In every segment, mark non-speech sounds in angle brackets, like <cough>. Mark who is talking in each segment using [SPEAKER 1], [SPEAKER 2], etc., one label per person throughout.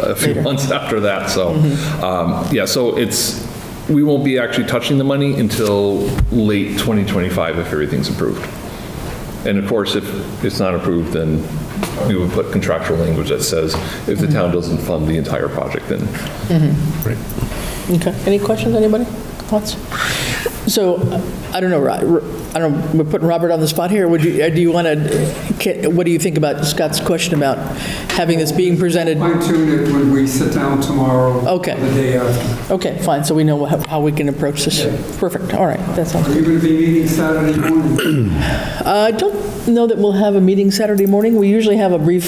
[SPEAKER 1] a few months after that, so,
[SPEAKER 2] Mm-hmm.
[SPEAKER 1] um, yeah, so it's, we won't be actually touching the money until late 2025 if everything's approved. And of course, if it's not approved, then we would put contractual language that says if the
[SPEAKER 2] Mm-hmm.
[SPEAKER 1] town doesn't fund the entire project, then
[SPEAKER 2] Okay, any questions, anybody? Thoughts? So, I don't know, Ro- I don't, we're putting Robert on the spot here, would you, uh, do you want to, what do you think about Scott's question about having this being presented?
[SPEAKER 3] Fine tune it when we sit down tomorrow. or
[SPEAKER 2] Okay.
[SPEAKER 3] The day after.
[SPEAKER 2] Okay, fine, so we know how how we can approach this. Perfect, all right, that sounds Uh,
[SPEAKER 3] Are you going to be meeting Saturday morning?
[SPEAKER 2] I don't know that we'll have a meeting Saturday morning. We usually have a brief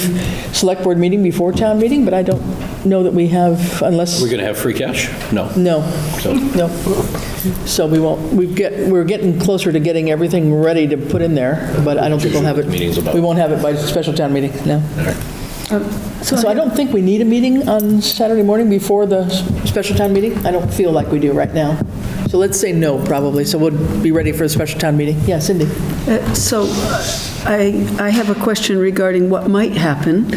[SPEAKER 2] select board meeting before town meeting, but I don't know that we have, unless,
[SPEAKER 4] We're going to have free cash? No.
[SPEAKER 2] no,
[SPEAKER 4] So-
[SPEAKER 2] no. So we won't, we get, we're getting closer to getting everting ready to put in there, but I don't think we'll have it.
[SPEAKER 4] Meeting's about.
[SPEAKER 2] We won't have it by special town meeting, no.
[SPEAKER 5] Um,
[SPEAKER 2] So I don't think we need a meeting on Saturday morning before the s- special town meeting. I don't feel like we do right now. So let's say no, probably, so we'll be ready for the special town meeting. Yeah, Cindy?
[SPEAKER 5] Uh, So uh, I, I have a question regarding what might happen,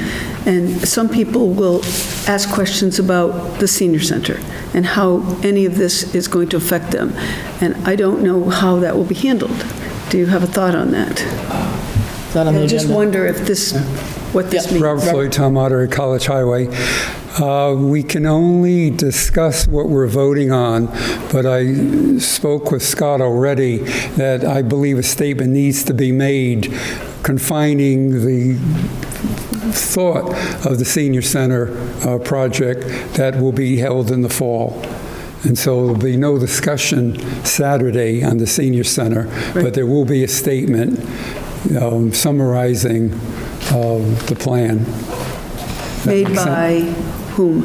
[SPEAKER 5] and some people will ask questions about the senior center and how any of this is going to affect them, and I don't know how that will be handled. Do you have a thought on that?
[SPEAKER 2] Not on the
[SPEAKER 5] I just
[SPEAKER 2] agenda.
[SPEAKER 5] wonder if this, what this means.
[SPEAKER 6] Robert Floyd, Tom Otter, College Highway. Uh, We can only discuss what we're voting on, but I spoke with Scott already that I believe a statement needs to be made confining the thought of the senior center uh, project that will be held in the fall. And so there'll be no discussion Saturday on the senior center, but there will be a statement um, summarizing uh, the plan.
[SPEAKER 5] Made by whom?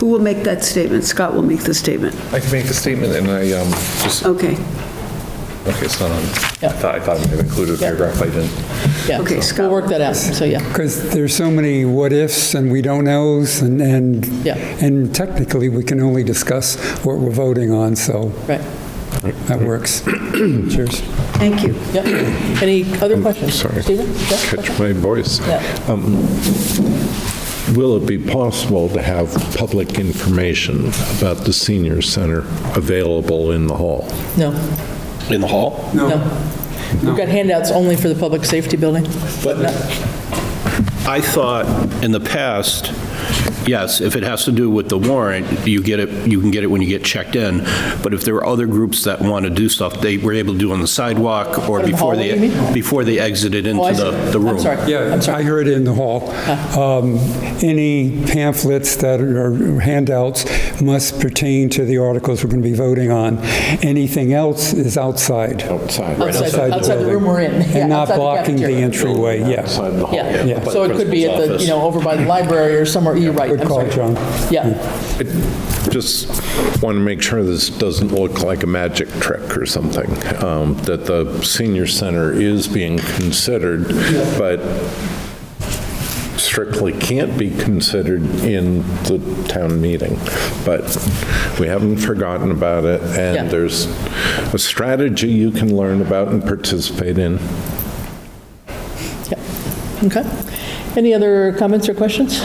[SPEAKER 5] Who will make that statement? Scott will make the statement.
[SPEAKER 1] I can make the statement and I um, just,
[SPEAKER 5] Okay,
[SPEAKER 1] okay, it's not on, I
[SPEAKER 2] Yeah.
[SPEAKER 1] thought, I thought I had included a
[SPEAKER 2] Yeah.
[SPEAKER 1] paragraph, I didn't.
[SPEAKER 2] Yeah,
[SPEAKER 5] Okay,
[SPEAKER 2] We'll
[SPEAKER 5] Scott.
[SPEAKER 2] work that out, so yeah,
[SPEAKER 6] Because there's so many what-ifs and we don't knows, and, and
[SPEAKER 2] Yeah.
[SPEAKER 6] and technically, we can only discuss what we're voting on, so
[SPEAKER 2] right.
[SPEAKER 6] that works. <clears throat> Cheers.
[SPEAKER 5] thank you.
[SPEAKER 2] Yep. Any other questions?
[SPEAKER 7] sorry.
[SPEAKER 2] Stephen? Yeah, question?
[SPEAKER 7] Catch my voice. Um,
[SPEAKER 2] Yeah.
[SPEAKER 7] Will it be possible to have public information about the senior center available in the hall?
[SPEAKER 2] No,
[SPEAKER 4] In the hall?
[SPEAKER 2] no. We've got handouts only for the public safety building.
[SPEAKER 4] But I thought in the past, yes, if it has to do with the warrant, you get it, you can get it when you get checked in. But if there are other groups that want to do stuff, they were able to do on the sidewalk or
[SPEAKER 2] in the
[SPEAKER 4] before
[SPEAKER 2] hallway, you mean?
[SPEAKER 4] they, before they exited
[SPEAKER 2] Oh, I
[SPEAKER 4] into the,
[SPEAKER 2] see.
[SPEAKER 4] the room.
[SPEAKER 2] I'm sorry.
[SPEAKER 6] Yeah,
[SPEAKER 2] I'm sorry. Uh-huh.
[SPEAKER 6] I heard it in the hall. Um, Any pamphlets that are handouts must pertain to the articles we're going to be voting on. Anything else is outside.
[SPEAKER 7] Outside.
[SPEAKER 2] Outside- outside the
[SPEAKER 6] building.
[SPEAKER 2] room we're in. Yeah,
[SPEAKER 6] And not
[SPEAKER 2] outside the
[SPEAKER 6] blocking the
[SPEAKER 2] cafeteria.
[SPEAKER 6] entryway, yeah.
[SPEAKER 7] Outside the hall.
[SPEAKER 2] Yeah,
[SPEAKER 6] Yeah.
[SPEAKER 2] so it could be at the, you know, over by the library or somewhere, you're right.
[SPEAKER 6] Good
[SPEAKER 2] I'm
[SPEAKER 6] call,
[SPEAKER 2] sorry.
[SPEAKER 6] John.
[SPEAKER 2] Yeah,
[SPEAKER 7] Just want to make sure this doesn't look like a magic trick or something, um, that the senior center is being considered, but strictly can't be considered in the town meeting. But we haven't forgotten about it,
[SPEAKER 2] Yeah.
[SPEAKER 7] and there's a strategy you can learn about and participate in.
[SPEAKER 2] yeah. Okay. Any other comments or questions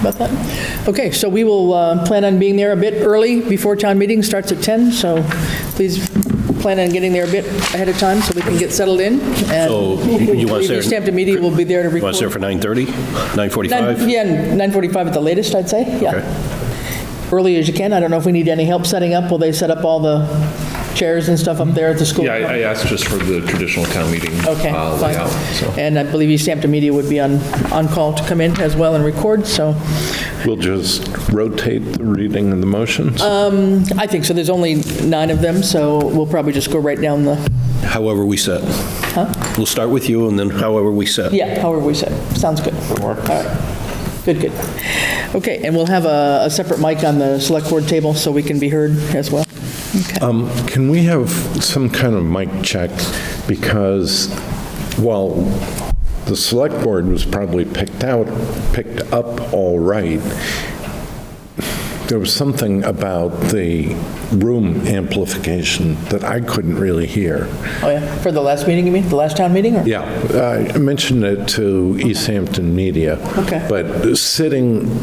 [SPEAKER 2] about that? Okay, so we will uh, plan on being there a bit early before town meeting starts at 10, so please plan on getting there a bit ahead of time so we can get settled in. and
[SPEAKER 4] So you you want to say?
[SPEAKER 2] Review Stamped immediately, we'll be there to
[SPEAKER 4] You want
[SPEAKER 2] record.
[SPEAKER 4] to say for 9:30,
[SPEAKER 2] Nine-
[SPEAKER 4] 9:45?
[SPEAKER 2] Yeah, 9:45 at the latest, I'd say, yeah. Early as you can. I don't know if we need any help setting up. Will they set up all the chairs and stuff up there at the school?
[SPEAKER 1] Yeah, I I asked just for the traditional town meeting
[SPEAKER 2] Okay,
[SPEAKER 1] uh, layout, so.
[SPEAKER 2] fine. And I believe East Hampton Media would be on, on call to come in as well and record, so
[SPEAKER 7] We'll just rotate the reading and the motions?
[SPEAKER 2] um, I think so. There's only nine of them, so we'll probably just go right down the,
[SPEAKER 4] However we set. We'll start with you and then however we set.
[SPEAKER 2] yeah, however we said. Sounds good. All right. Good, good. Okay, and we'll have a a separate mic on the select board table so we can be heard as well.
[SPEAKER 7] Um, Can we have some kind of mic check? Because while the select board was probably picked out, picked up all right, there was something about the room amplification that I couldn't really hear.
[SPEAKER 2] Oh, yeah, for the last meeting, you mean? The last town meeting? or-
[SPEAKER 7] Yeah, I mentioned it to East Hampton Media.
[SPEAKER 2] Okay.
[SPEAKER 7] But sitting